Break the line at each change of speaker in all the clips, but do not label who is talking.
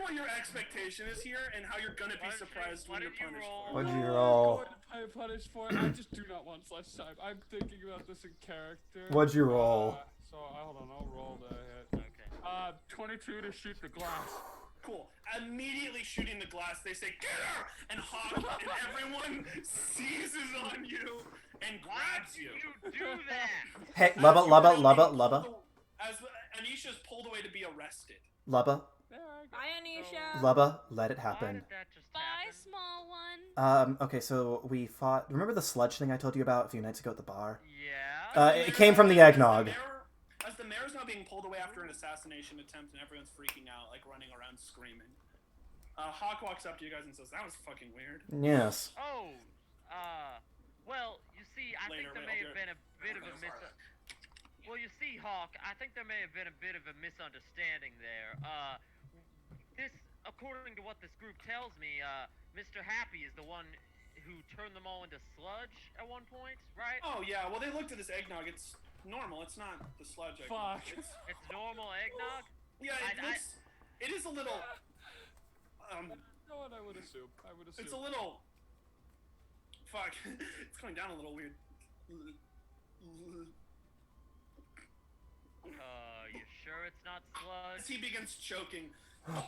what your expectation is here and how you're gonna be
Why don't you-
surprised
why
when you're
don't you
punished.
roll?
for it.
What'd you
No,
roll?
I'm going to pay punish for it. I just do not want slash type. I'm thinking about this in character.
What'd you roll?
Uh, so I hold on, I'll roll the hit.
Okay.
Uh, 22 to shoot the glass.
Cool. Immediately shooting the glass, they say, Get her! And Hawk and everyone seizes on you and
Why
grabs
do
you.
you do that?
Hey, lubba, lubba, lubba, lubba,
As Anisha's pulled away to be arrested.
lubba,
There I go.
Bye, Anisha.
lubba. Let it
Why
happen.
did that just
Bye,
happen?
small one.
Um. Okay. So we fought. Remember the sludge thing I told you about a few nights ago at the bar?
Yeah.
Uh, it came from the eggnog.
As the mayor- As the mayor's now being pulled away after an assassination attempt and everyone's freaking out, like running around screaming. Uh, Hawk walks up to you guys and says, That was fucking weird.
Yes.
oh. Uh. Well, you see, I
Later, wait,
think there may
I'll do
have
it.
been a bit of a mis. Well, you see, Hawk, I think there may have been a bit of a misunderstanding there. Uh, this, according to what this group tells me, uh, Mr. Happy is the one who turned them all into sludge at one point, right?
Oh, yeah, well, they looked at this eggnog. It's normal, it's not the sludge eggnog.
Fuck.
It's-
It's normal eggnog.
yeah, it
I- I-
looks. It is a little. Um,
No one I would assume. I would assume.
it's a little. Fuck. it's going down a little weird.
Uh, you sure it's not
As
sludge?
he begins choking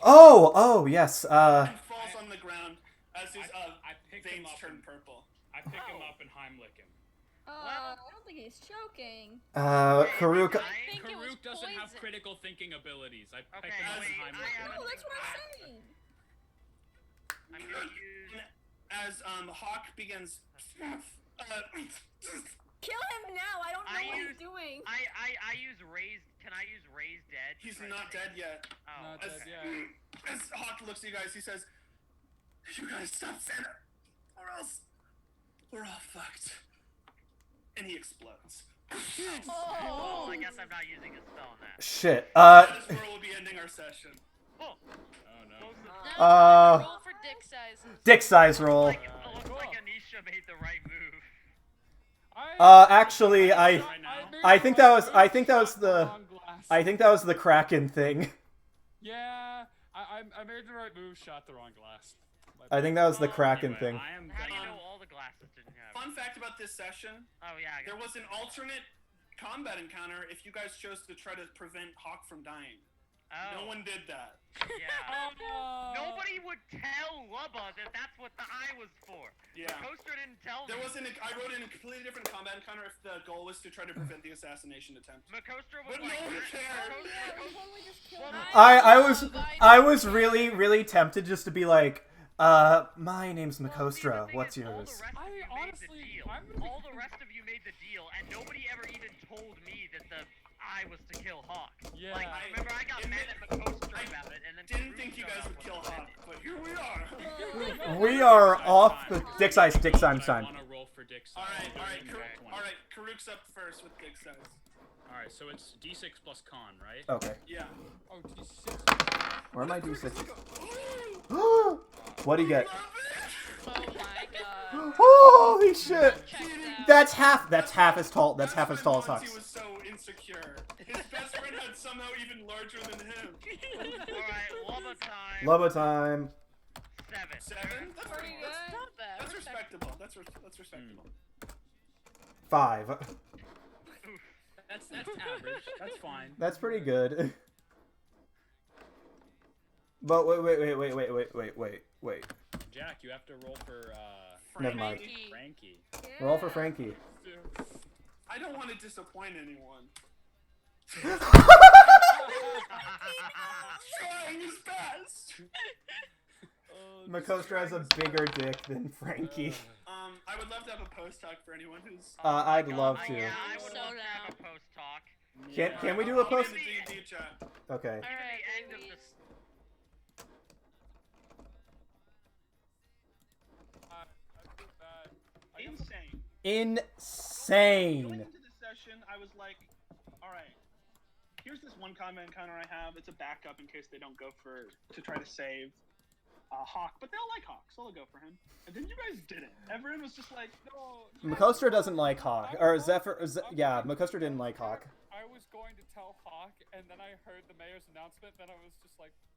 Oh. Oh. Yes. Uh.
and falls on the ground as his uh,
I, I pick him
veins
up.
turn
And,
purple.
I pick him
Oh.
up and Heimlich him.
Oh, I don't think he's choking.
Uh. Karuk.
I think it was
Karuk doesn't have
poison.
critical thinking abilities. I pick
Okay,
him up
wait,
and
I
Heimlich
am-
him.
No, that's what I'm saying.
I'm gonna use.
as um, Hawk begins. Uh,
Kill him now. I don't know
I
what
used-
he's doing.
I, I, I use raised. Can I use raised dead?
he's
Right,
not
okay.
dead yet.
Oh,
Not
As,
dead yet.
as Hawk looks at you guys, he says, "You guys stop Santa, or else we're all fucked." And he explodes.
Well,
Oh,
I guess I'm not using a spell on that.
Shit. Uh.
That is where we'll be ending our session.
Oh,
Oh no.
close the-
Now
Uh,
roll for dick sizes.
Dick size roll.
Like, it looks like
Oh.
Anisha made the right move.
I,
Uh. Actually, I.
Right now.
made
I think that
one
was- I think that
shot
was the-
wrong glass.
I think that was the Kraken thing.
Yeah, I, I, I made the right move, shot the wrong glass. My
I
bad.
think that was the Kraken
Anyway,
thing.
I am
How do you
gonna-
know all the glasses didn't have? it?
Fun fact about this session:
Oh yeah, I
there
guess.
was an alternate combat encounter if you guys chose to try to prevent Hawk from dying.
Oh,
No one did that.
yeah. Um,
Oh,
Nobody would tell Lubba that that's what the eye was for.
Yeah.
The coaster didn't tell
There
me.
wasn't. A, I wrote in a completely different combat encounter if the goal was to try to prevent the assassination attempt.
Makostra was
But no
like,
one
"That-
cared."
Oh, yeah, we totally just killed him.
I I was I was really really tempted just to be like, uh, my name's
Well, see, the
Makostra.
thing
What's
is, all the
yours?
rest of
I
you made the
honestly-
deal.
I'm gonna be-
all the rest of you made the deal, and nobody ever even told me that the I was to kill Hawk.
Yeah.
Like,
I-
remember, I got
admit-
mad at Makostra
I
about it, and then
Didn't
Karuk
think you
showed
guys
up
would
when
kill
I
Hawk,
did.
but here we are.
We are off the dick size, dick
I
size,
want
sign.
to roll for dick size.
All right, all right,
Roll
Karuk,
20.
all right. Karuk's up first with big size.
All right, so it's d6 plus con, right?
Okay.
Yeah.
Oh, D6.
Where am I do six?
Oh,
what do you get?
Oh my god.
Holy shit!
Check out.
That's half. That's half as tall. That's half as tall as
He was
Hux.
so insecure. His best friend had somehow even larger than him.
All right, Lubba time.
Lobo time.
Seven.
Seven. That's
Pretty
pretty
good.
good.
Not bad.
That's respectable. That's res- that's respectable.
Five.
That's that's average. That's fine.
That's pretty good. But wait, wait, wait, wait, wait, wait, wait, wait, wait.
Jack, you have to roll for uh,
Never mind.
Frankie.
Frankie.
Roll for Frankie.
I don't want to disappoint anyone. Trying his best.
Oh,
Makostra has a bigger dick than Frankie.
Um, I would love to have a post talk for anyone who's.
Uh, I'd love
I,
to.
yeah, I would
So
love to have
down.
a post talk.
Can can we do a
I'll give
post?
you the D&D chat.
Okay.
All right,
End of
Louise.
the
I- I feel bad. I guess-
Insane. Going
Insane.
into this session, I was like, all right, here's this one combat encounter I have. It's a backup in case they don't go for to try to save uh, Hawk, but they'll like Hawk, so they'll go for him. And then you guys didn't. Everyone was just like,
No, yeah,
Makostra doesn't like Hawk, or Zephyr. Z- yeah, Makostra didn't like Hawk.
I was going to tell Hawk, and then I heard the mayor's announcement. Then I was just like,